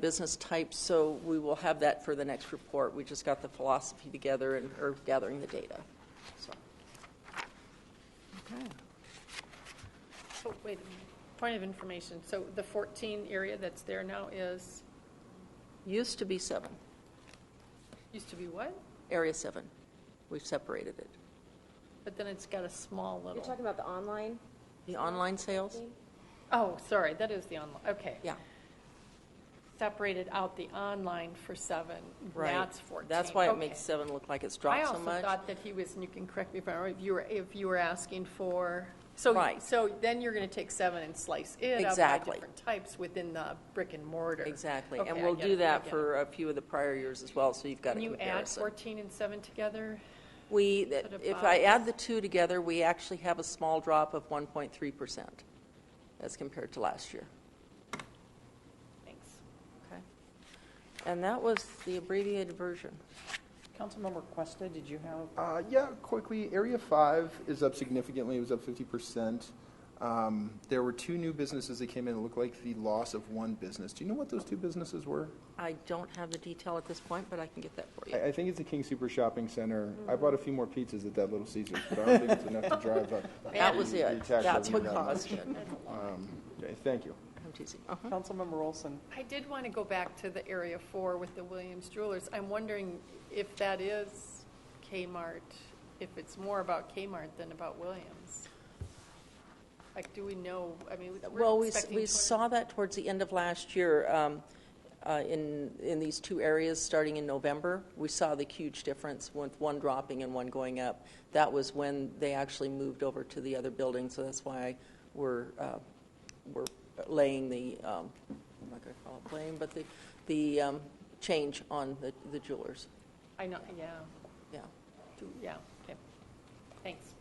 business types, so we will have that for the next report. We just got the philosophy together and are gathering the data. So, Okay. Oh, wait, a minute. point of information. So the 14 area that's there now is, Used to be seven, used to be what? Area 7. We've separated it. But then it's got a small You're little, talking about the online? The online sales? thing? oh, sorry, that is the online, okay. Yeah. Separated out the online for seven. Right. That's 14. That's why it Okay. makes seven look like it's I dropped so also much. thought that he was, and you can correct me if I'm wrong, if you were, if you were asking for, so, Right. so then you're going to take seven and slice it up by Exactly. different types within the brick and mortar. Exactly. Okay, And I we'll get do it, I that get it. for a few of the prior years as well, so you've got a Can you add comparison. 14 and seven together? We, Put a if I add box. the two together, we actually have a small drop of 1.3% as compared to last year. Thanks. Okay. And that was the abbreviated version. Councilmember Questa, did you have? Uh, yeah, quickly. Area 5 is up significantly. It was up 50%. Um, there were two new businesses that came in. It looked like the loss of one business. Do you know what those two businesses were? I don't have the detail at this point, but I can get that for you. I, I think it's the King Super Shopping Center. Mm-hmm. I bought a few more pizzas at that Little Caesars, but I don't think it's enough to drive up. That was the it. tax That's what revenue that caused much. it. Um, okay, thank you. I'm teasing. Uh-huh. Councilmember Olson, I did want to go back to the Area 4 with the Williams Jewelers. I'm wondering if that is Kmart, if it's more about Kmart than about Williams. Like, do we know, I mean, Well, we're we, s- expecting we 200 saw that towards the end of last year um, uh, in, in these two areas, starting in November. We saw the huge difference with one dropping and one going up. That was when they actually moved over to the other building, so that's why we're, uh, we're laying the, um, I'm not going to call it blame, but the, the um, change on the the jewelers. I know, yeah, Yeah. Do- yeah, okay. Thanks.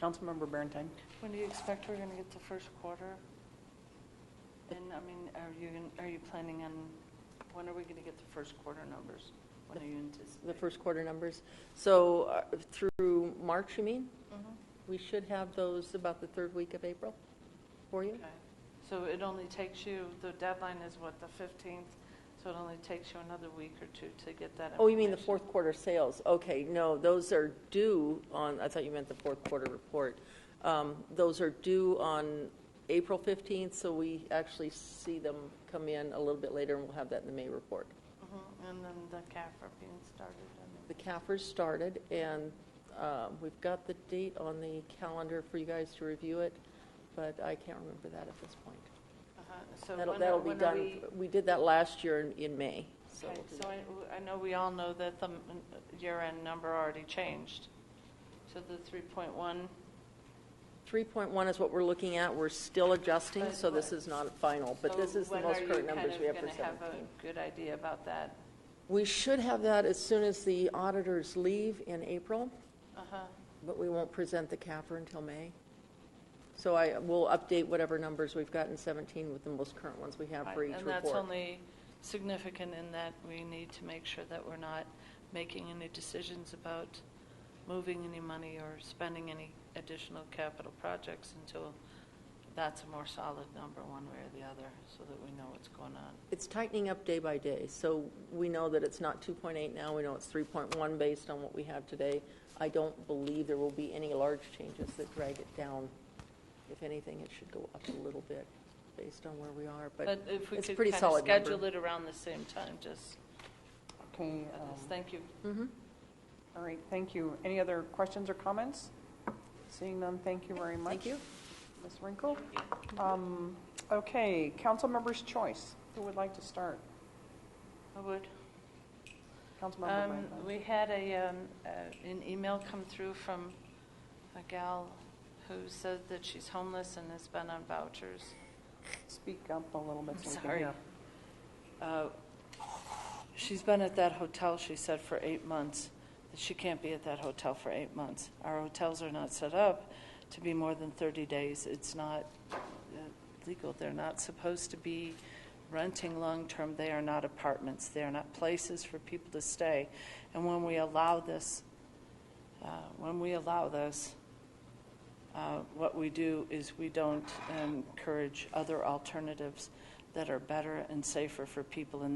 Councilmember Berantine. When do you expect we're going to get the first quarter? And, I mean, are you, gon- are you planning on, when are we going to get the first quarter numbers? When are you anticipating? the first quarter numbers. So uh, through March, you mean? We should have those about the third week of April for you? Okay. So it only takes you, the deadline is what, the 15th? So it only takes you another week or two to get that information? Oh, you mean the fourth quarter sales? Okay, no, those are due on, I thought you meant the fourth quarter report. Um, Those are due on April 15th, so we actually see them come in a little bit later, and we'll have that in the May report. Mhm, And then the CAFRA being started and. The CAFRs started, and uh, we've got the date on the calendar for you guys to review it, but I can't remember that at this point. uh-huh. So That'll, when are- that'll be when are done, we- we did that last year in, in May, so. Okay, so I, I know we all know that the m- year-end number already changed. So the 3.1 Three point one is what we're looking at, we're still adjusting, so this is not final, but this is the most current numbers we have for So when are you kind of going to seventeen. have a good idea about that? We should have that as soon as the auditors leave in April, Uh-huh, but we won't present the CAFR until May. So I, will update whatever numbers we've got in seventeen with the most current ones we have right. for each And that's report. only significant in that we need to make sure that we're not making any decisions about moving any money or spending any additional capital projects until that's a more solid number, one way or the other, so that we know what's going on. It's tightening up day by day, so we know that it's not 2.8 now, we know it's 3.1 based on what we have today. I don't believe there will be any large changes that drag it down. If anything, it should go up a little bit based on where we are, but But if we it's a could pretty kind of solid schedule number. it around the same time, just, Okay, um, uh, thank you. Mm-hmm. all right, thank you. Any other questions or comments? Seeing none, thank you very much. Thank you. Ms. Winkle? Um, Okay, council member's choice. Who would like to start? I would. Councilmember Um, Berantine. We had a, um, uh, an email come through from a gal who said that she's homeless and has been on vouchers. Speak up a little bit. I'm so we can sorry. hear. Uh, She's been at that hotel, she said, for eight months. That She can't be at that hotel for eight months. Our hotels are not set up to be more than 30 days. It's not uh, legal. They're not supposed to be renting long-term. They are not apartments. They are not places for people to stay. And when we allow this, uh, when we allow this, uh, what we do is we don't encourage other alternatives. that are better and safer for people in